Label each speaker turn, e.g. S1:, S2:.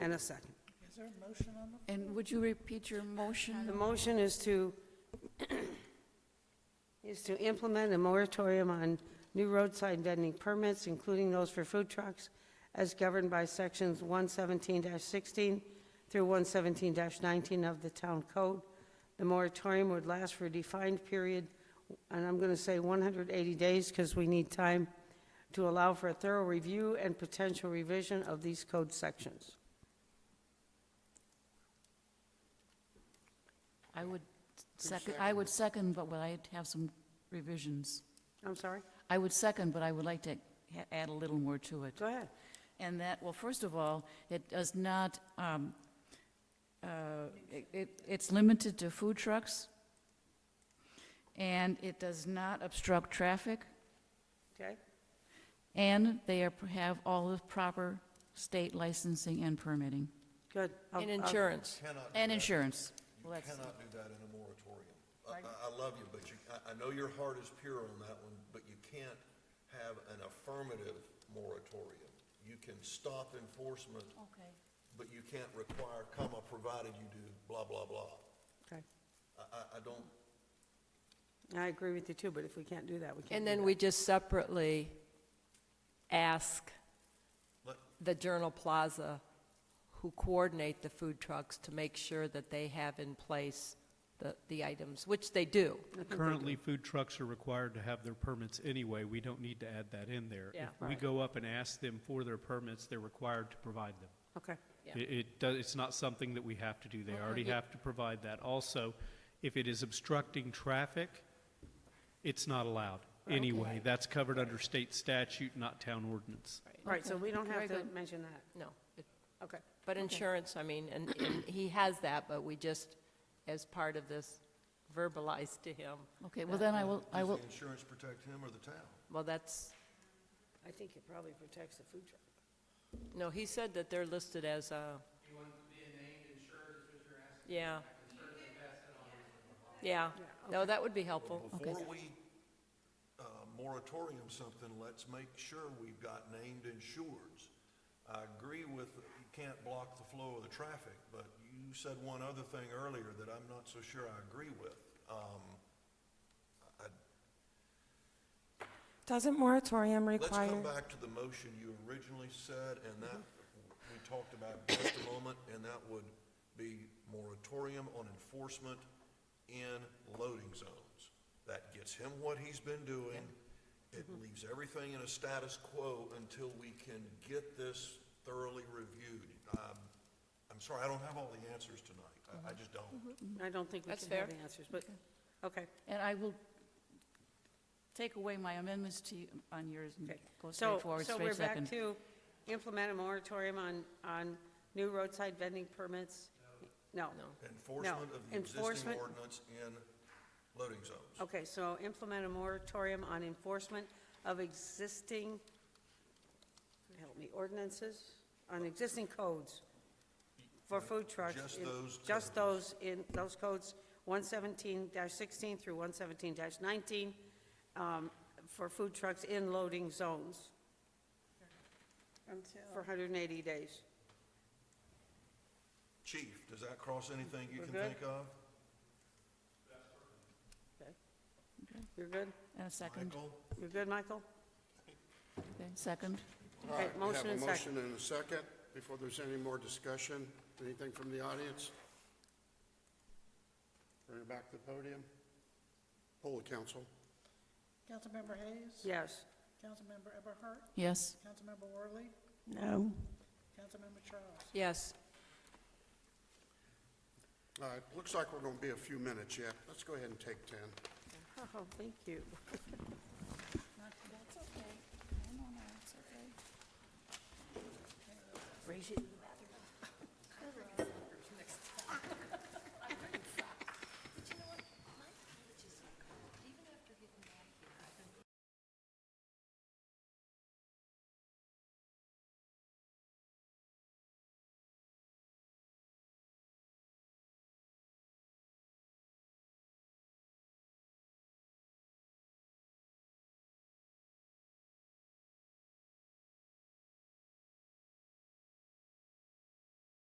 S1: and a second.
S2: Is there a motion on the?
S3: And would you repeat your
S1: The
S3: motion?
S1: motion is to, is to implement a moratorium on new roadside vending permits, including those for food trucks, as governed by sections 117-16 through 117-19 of the town code. The moratorium would last for a defined period, and I'm going to say 180 days, because we need time to allow for a thorough review and potential revision of these code sections.
S3: I would second, I would second, but would I have some revisions?
S1: I'm sorry?
S3: I would second, but I would like to ha- add a little more to it.
S1: Go ahead.
S3: And that, well, first of all, it does not, um, uh, it- it- it's limited to food trucks, and it does not obstruct traffic,
S1: Okay?
S3: and they are- have all the proper state licensing and permitting,
S1: Good. I'll-
S4: And
S1: I'll-
S4: insurance.
S5: Cannot,
S3: and insurance.
S5: you
S3: Well, that's-
S5: cannot do that in a moratorium. I, I I love you, but you, I, I know your heart is pure on that one, but you can't have an affirmative moratorium. You can stop enforcement,
S3: Oh.
S5: but you can't require, comma, provided you do blah, blah, blah.
S1: Okay.
S5: I, I, I don't,
S1: I agree with you too, but if we can't do that, we can't.
S4: And
S1: do
S4: then
S1: that.
S4: we just separately ask
S5: Let-
S4: the Journal Plaza, who coordinate the food trucks, to make sure that they have in place the, the items, which they do.
S6: Currently, food trucks are required to have their permits anyway. We don't need to add that in there.
S4: Yeah.
S6: If we go up and ask them for their permits, they're required to provide them.
S1: Okay,
S4: Yeah.
S6: It, it does, it's not something that we have to do. They already
S4: yeah.
S6: have to provide that. Also, if it is obstructing traffic, it's not allowed anyway. That's covered under state statute, not town ordinance.
S1: all right, so we don't have
S3: Very
S1: to
S3: good.
S1: mention that.
S4: No. it-
S1: Okay.
S4: But insurance, I mean, and, and he has that, but we just, as part of this, verbalized to him,
S3: Okay, well, then I will, I will,
S5: does the insurance protect him or the town?
S4: well, that's,
S1: I think it probably protects the food truck.
S4: no, he said that they're listed as uh, a. Yeah. Yeah. No, that would be helpful.
S5: Before we, uh, moratorium something, let's make sure we've got named insureds. I agree with, you can't block the flow of the traffic, but you said one other thing earlier that I'm not so sure I agree with. Um, I-
S7: Doesn't moratorium
S5: Let's come
S7: require,
S5: back to the motion you originally said, and that, we talked about just a moment, and that would be moratorium on enforcement in loading zones. That gets him what he's been doing. It leaves everything in a status quo until we can get this thoroughly reviewed. Um, I'm sorry, I don't have all the answers tonight. I,
S1: Mm-hmm.
S5: I just don't.
S1: I don't think we
S4: That's
S1: can have the
S4: fair.
S1: answers, but, okay.
S3: and I will take away my amendments to, you on yours and
S1: Okay.
S3: Mm-hmm. go
S1: So,
S3: straight forward,
S1: so we're
S3: straight
S1: back
S3: second.
S1: to implement a moratorium on, on new roadside vending permits? No.
S5: Enforcement of the existing
S1: enforcement- Oh.
S5: ordinance in loading zones.
S1: Okay, so implement a moratorium on enforcement of existing, help me, ordinances, on existing codes for food trucks.
S5: just
S1: in-
S5: those
S1: Just
S5: codes.
S1: those in, those codes, one seventeen sixteen through one seventeen nineteen, um, for food trucks in loading zones. For hundred and eighty days.
S5: Chief, does that cross anything you
S1: We're
S5: can
S1: good?
S5: think of?
S1: You're good?
S3: And a second,
S5: Michael?
S1: You're good, Michael?
S3: okay, second.
S8: All
S1: Okay,
S8: right, we
S1: motion
S8: have a
S1: and second.
S8: motion and a second. Before there's any more discussion, anything from the audience? Bring it back to the podium. Poll the council.
S2: Councilmember Hayes?
S1: Yes.
S2: Councilmember Everhart?
S3: Yes,
S2: Councilmember Worley?
S7: no,
S2: Councilmember Charles?
S4: Yes.
S8: All right, looks like we're going to be a few minutes yet. Let's go ahead and take 10.
S1: Oh, thank you.
S3: raise it,